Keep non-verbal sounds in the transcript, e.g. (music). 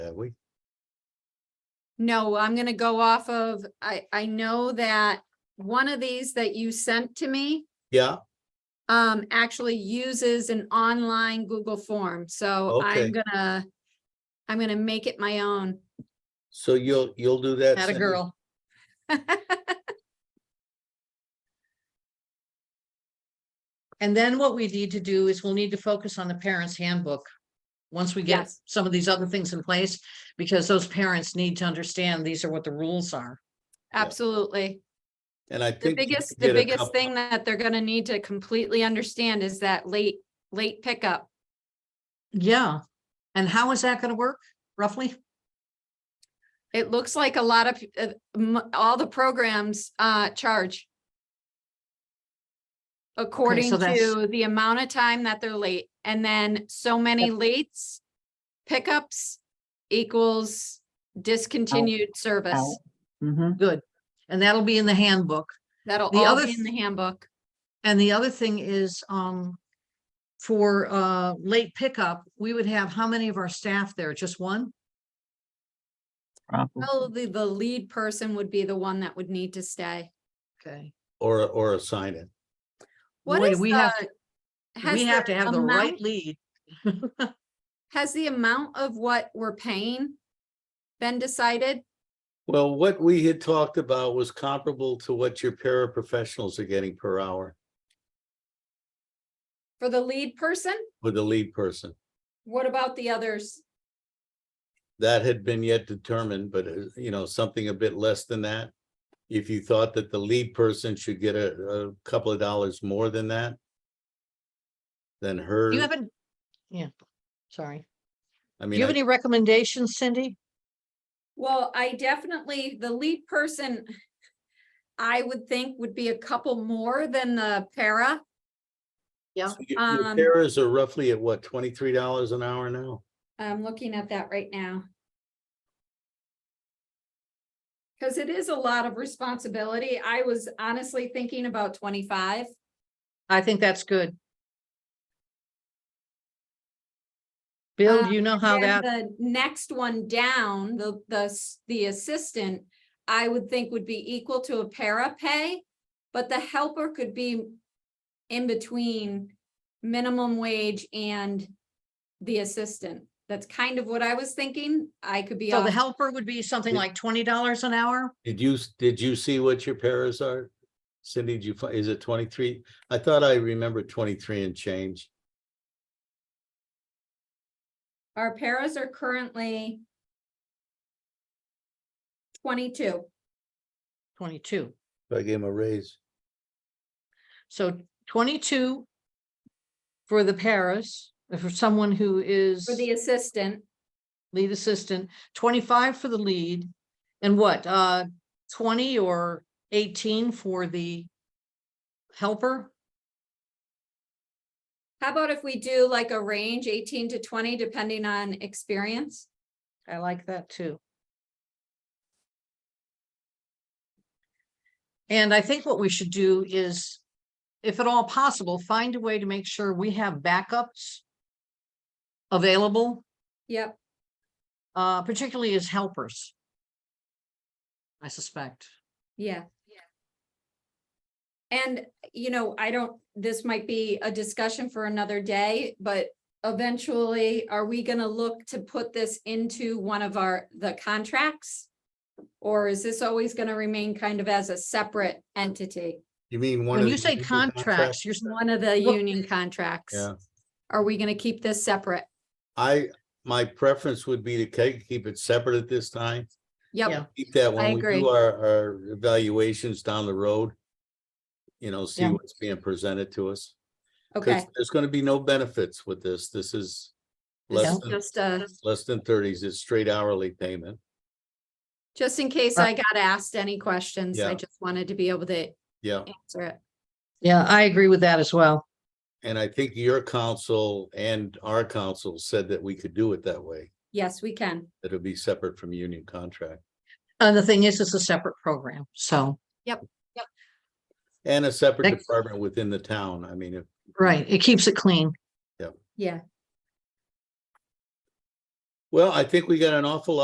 have we? No, I'm gonna go off of, I, I know that one of these that you sent to me Yeah, um, actually uses an online Google form, so I'm Okay. gonna, I'm gonna make it my own. (laughs) so you'll, you'll do that. Not a Cindy? girl. And then what we need to do is we'll need to focus on the parents handbook. Once we get Yes. some of these other things in place, because those parents need to understand these are what the rules are. Absolutely. And I The think. you biggest, did the a biggest couple- thing that they're gonna need to completely understand is that late, late pickup. Yeah. And how is that gonna work roughly? It looks like a lot of, uh, m- all the programs, uh, charge. According that's- to the amount of time that they're late, and then so many lates, pickups equals Oh, discontinued service. Good. And that'll be in the handbook. That'll The all other be in the handbook. And the other thing is, um, for, uh, late pickup, we would have how many of our staff there? Just one? Oh. Probably the lead person would be the one that would need to stay. Okay. Or, or assign it. What Boy, is we have the? has We have to have the right amount- lead. Has the amount of what we're paying been decided? Well, what we had talked about was comparable to what your paraprofessionals are getting per hour For the lead person? with the lead person. What about the others? That had been yet determined, but uh, you know, something a bit less than that. If you thought that the lead person should get a, a couple of dollars more than that. Than her, You haven't, yeah, sorry. I Do mean, you have I- any recommendations, Cindy? Well, I definitely, the lead person, I would think would be a couple more than the para. so your- your um, paras are roughly at what, twenty-three dollars an hour now? I'm looking at that right now. Cause it is a lot of responsibility. I was honestly thinking about twenty-five. I think that's good. Bill, Uh, do you know how Then that, the next one down, the, the, s- the assistant, I would think would be equal to a para pay. But the helper could be in between minimum wage and the assistant. That's kind of what I was thinking. I could be so the off. helper would be something Yeah. like twenty dollars an hour? Did you, s- did you see what your paras are? Cindy, did you, fi- is it twenty-three? I thought I remembered twenty-three and change. Our paras are currently twenty-two. Twenty-two. So I gave him a raise. So twenty-two for the Paris, uh, for someone who is For the assistant, lead assistant, twenty-five for the lead, and what, uh, twenty or eighteen for the helper? how about if we do like a range eighteen to twenty, depending on experience? I like that too. And I think what we should do is, if at all possible, find a way to make sure we have backups available, Yep, uh, particularly as helpers. I suspect. yeah. And, you know, I don't, this might be a discussion for another day, but eventually, are we gonna look to put this into one of our, the contracts? Or is this always gonna remain kind of as a separate entity? You mean one of. When you the say union contracts, you're, One of the Well- union contracts. Yeah. Are we gonna keep this separate? I, my preference would be to ke- keep it separate at this time. Yeah. Yep, Keep that when we agree. do our, our evaluations down the road. You know, see Yeah. what's being presented to us. 'Cause okay, There's gonna be no benefits with this. This is This less is than, just, uh, less than thirties. It's straight hourly payment. just in case I got asked any questions, I Yeah. just wanted to be able to Yeah, answer it. yeah, I agree with that as well. and I think your council and our council said that we could do it that way. Yes, we can. That it'll be separate from union contract And the thing is, it's a separate program, so, and a separate Thank- department within the town. I mean, if right, it keeps it clean. Yeah. Well, I think we got an awful lot.